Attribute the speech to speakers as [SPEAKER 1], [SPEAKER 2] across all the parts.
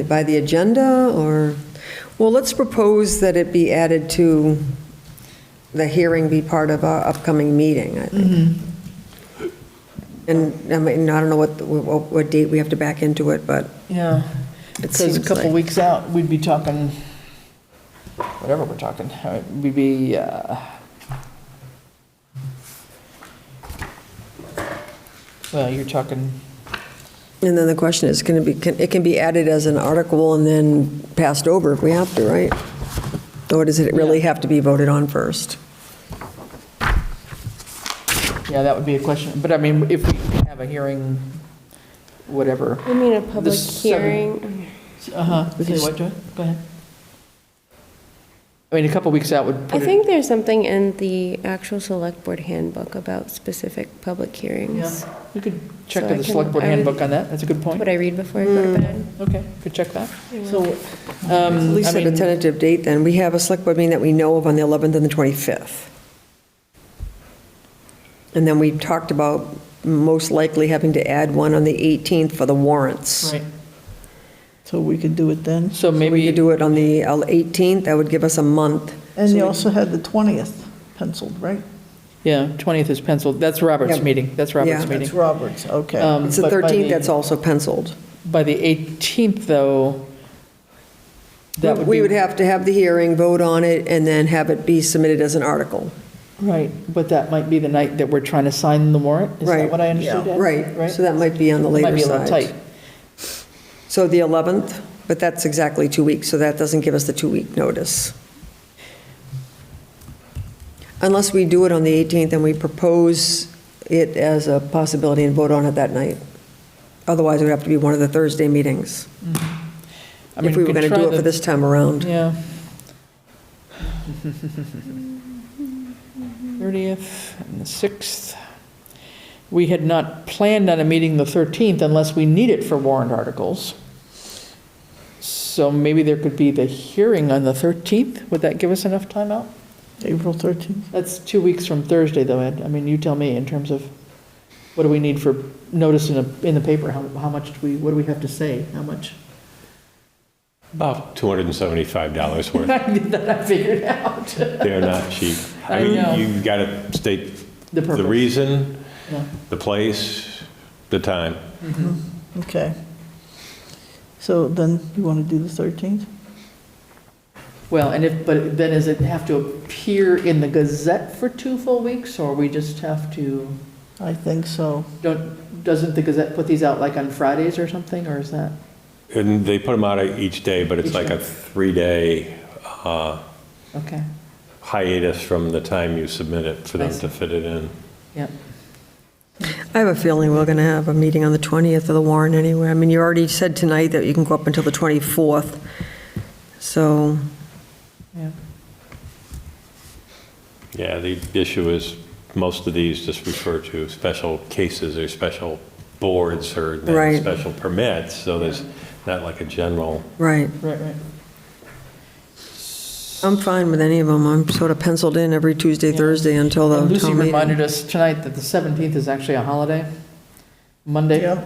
[SPEAKER 1] By the agenda, or, well, let's propose that it be added to, the hearing be part of our upcoming meeting, I think.
[SPEAKER 2] Mm-hmm.
[SPEAKER 1] And, I mean, I don't know what, what what date we have to back into it, but
[SPEAKER 2] Yeah,
[SPEAKER 1] it
[SPEAKER 2] because
[SPEAKER 1] seems
[SPEAKER 2] a couple
[SPEAKER 1] like-
[SPEAKER 2] weeks out, we'd be talking, whatever we're talking, uh, we'd be, uh, well, you're talking,
[SPEAKER 1] And then the question is, can it be, can- it can be added as an article and then passed over if we have to, right? Or does it really have to be voted on first?
[SPEAKER 2] yeah, that would be a question, but I mean, if we have a hearing, whatever.
[SPEAKER 3] I mean, a public
[SPEAKER 2] seven-
[SPEAKER 3] hearing,
[SPEAKER 2] Uh-huh,
[SPEAKER 1] We
[SPEAKER 2] say
[SPEAKER 1] could
[SPEAKER 2] what, Joy? Go ahead. I mean, a couple weeks out would
[SPEAKER 3] I
[SPEAKER 2] put it,
[SPEAKER 3] think there's something in the actual select board handbook about specific public hearings.
[SPEAKER 2] we could
[SPEAKER 3] so
[SPEAKER 2] check
[SPEAKER 3] I
[SPEAKER 2] the
[SPEAKER 3] can-
[SPEAKER 2] select board
[SPEAKER 3] I would-
[SPEAKER 2] handbook on that, that's a good point.
[SPEAKER 3] What I read before I go to bed.
[SPEAKER 2] Okay, could check that. So, um,
[SPEAKER 1] At least
[SPEAKER 2] I
[SPEAKER 1] at a
[SPEAKER 2] mean,
[SPEAKER 1] tentative date, then. We have a select board meeting that we know of on the 11th and the 25th. And then we talked about most likely having to add one on the 18th for the warrants.
[SPEAKER 2] right,
[SPEAKER 4] So we could do it then.
[SPEAKER 2] so
[SPEAKER 1] So
[SPEAKER 2] maybe.
[SPEAKER 1] we could do it on the 18th, that would give us a month.
[SPEAKER 4] And
[SPEAKER 2] So
[SPEAKER 4] you
[SPEAKER 2] we-
[SPEAKER 4] also had the 20th penciled, right?
[SPEAKER 2] Yeah, 20th is penciled. That's Robert's
[SPEAKER 1] Yeah.
[SPEAKER 2] meeting. That's
[SPEAKER 1] Yeah.
[SPEAKER 2] Robert's meeting.
[SPEAKER 4] That's Roberts, okay.
[SPEAKER 2] Um,
[SPEAKER 1] It's the
[SPEAKER 2] but by
[SPEAKER 1] 13th
[SPEAKER 2] the-
[SPEAKER 1] that's also penciled.
[SPEAKER 2] By the 18th, though, that would be.
[SPEAKER 1] We would have to have the hearing, vote on it, and then have it be submitted as an article.
[SPEAKER 2] Right, but that might be the night that we're trying to sign the warrant. Is
[SPEAKER 1] Right.
[SPEAKER 2] that what I understood? Ed?
[SPEAKER 1] Right, so that might be on the later
[SPEAKER 2] Might be a
[SPEAKER 1] side.
[SPEAKER 2] little tight.
[SPEAKER 1] So the 11th, but that's exactly two weeks, so that doesn't give us the two-week notice. Unless we do it on the 18th and we propose it as a possibility and vote on it that night. Otherwise, it would have to be one of the Thursday meetings,
[SPEAKER 2] I mean,
[SPEAKER 1] if we were
[SPEAKER 2] could
[SPEAKER 1] going to
[SPEAKER 2] try
[SPEAKER 1] do it
[SPEAKER 2] the-
[SPEAKER 1] for this time around.
[SPEAKER 2] Yeah. 30th and the 6th. We had not planned on a meeting the 13th unless we need it for warrant articles. So maybe there could be the hearing on the 13th. Would that give us enough time out?
[SPEAKER 4] April 13th.
[SPEAKER 2] That's two weeks from Thursday, though, Ed. I mean, you tell me in terms of, what do we need for notice in the, in the paper? How, how much do we, what do we have to say? How much?
[SPEAKER 5] About $275 worth.
[SPEAKER 2] I did that, I figured out.
[SPEAKER 5] They're not cheap.
[SPEAKER 2] I know.
[SPEAKER 5] You've got to state
[SPEAKER 2] The
[SPEAKER 5] the
[SPEAKER 2] purpose.
[SPEAKER 5] reason,
[SPEAKER 2] Yeah.
[SPEAKER 5] the place, the time.
[SPEAKER 4] Okay. So then you want to do the 13th?
[SPEAKER 2] Well, and if, but then does it have to appear in the Gazette for two full weeks, or we just have to,
[SPEAKER 4] I think so.
[SPEAKER 2] don't, doesn't the Gazette put these out like on Fridays or something, or is that?
[SPEAKER 5] And they put them out each day, but it's
[SPEAKER 2] Each
[SPEAKER 5] like
[SPEAKER 2] day.
[SPEAKER 5] a three-day uh,
[SPEAKER 2] Okay,
[SPEAKER 5] hiatus from the time you submit it for
[SPEAKER 2] I
[SPEAKER 5] them
[SPEAKER 2] see.
[SPEAKER 5] to fit it in.
[SPEAKER 2] yep.
[SPEAKER 1] I have a feeling we're going to have a meeting on the 20th of the warrant anyway. I mean, you already said tonight that you can go up until the 24th, so
[SPEAKER 2] Yeah.
[SPEAKER 5] Yeah, the issue is, most of these just refer to special cases or special boards or then
[SPEAKER 1] Right.
[SPEAKER 5] special permits, so there's not like a general.
[SPEAKER 1] Right.
[SPEAKER 2] Right, right.
[SPEAKER 1] I'm fine with any of them. I'm sort of penciled in every Tuesday,
[SPEAKER 2] Yeah.
[SPEAKER 1] Thursday until the
[SPEAKER 2] And
[SPEAKER 1] town meeting.
[SPEAKER 2] Lucy reminded us tonight that the 17th is actually a holiday, Monday,
[SPEAKER 4] Yeah,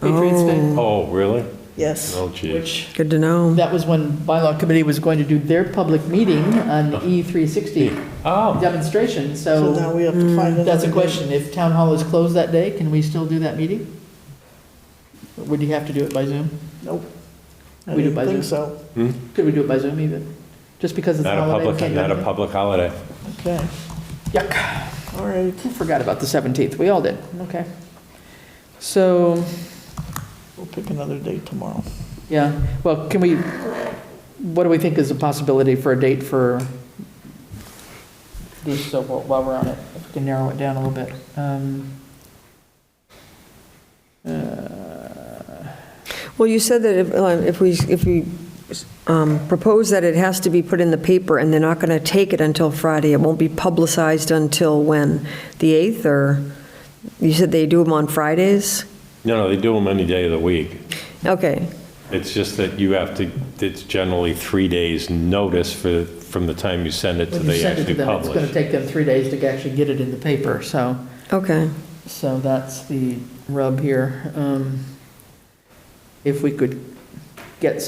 [SPEAKER 2] Patriots Day,
[SPEAKER 5] Oh, really?
[SPEAKER 4] yes.
[SPEAKER 5] Oh, geez.
[SPEAKER 2] which,
[SPEAKER 1] Good to know.
[SPEAKER 2] that was when bylaw committee was going to do their public meeting on the E360
[SPEAKER 5] Oh.
[SPEAKER 2] demonstration,
[SPEAKER 4] So now we have to find another.
[SPEAKER 2] Oh, mm, That's a
[SPEAKER 4] day.
[SPEAKER 2] question. If town hall is closed that day, can we still do that meeting? Would you have to do it by Zoom?
[SPEAKER 4] Nope. I
[SPEAKER 2] We do
[SPEAKER 4] didn't
[SPEAKER 2] by
[SPEAKER 4] think
[SPEAKER 2] Zoom.
[SPEAKER 4] so.
[SPEAKER 2] Could we do it by Zoom even? Just because it's a
[SPEAKER 5] Not a
[SPEAKER 2] holiday? we
[SPEAKER 5] public,
[SPEAKER 2] can't do
[SPEAKER 5] not a
[SPEAKER 2] anything?
[SPEAKER 5] public holiday.
[SPEAKER 4] Okay,
[SPEAKER 2] Yuck.
[SPEAKER 4] all right.
[SPEAKER 2] I Forgot about the 17th. We all did. Okay. So,
[SPEAKER 4] We'll pick another date tomorrow.
[SPEAKER 2] yeah, well, can we, what do we think is a possibility for a date for this, so while while we're on it, if we can narrow it down a little bit? Um,
[SPEAKER 1] Well, you said that if- uh, if we, if we um, propose that it has to be put in the paper and they're not going to take it until Friday, it won't be publicized until when? The 8th or, you said they do them on Fridays?
[SPEAKER 5] No, no, they do them any day of the week.
[SPEAKER 1] Okay,
[SPEAKER 5] It's just that you have to, it's generally three days' notice for, from the time you send it to
[SPEAKER 2] When you
[SPEAKER 5] they
[SPEAKER 2] send it to
[SPEAKER 5] actually
[SPEAKER 2] them, it's going to
[SPEAKER 5] publish.
[SPEAKER 2] take them three days to actually get it in the paper, so.
[SPEAKER 1] okay.
[SPEAKER 2] So that's the rub here. Um, If we could get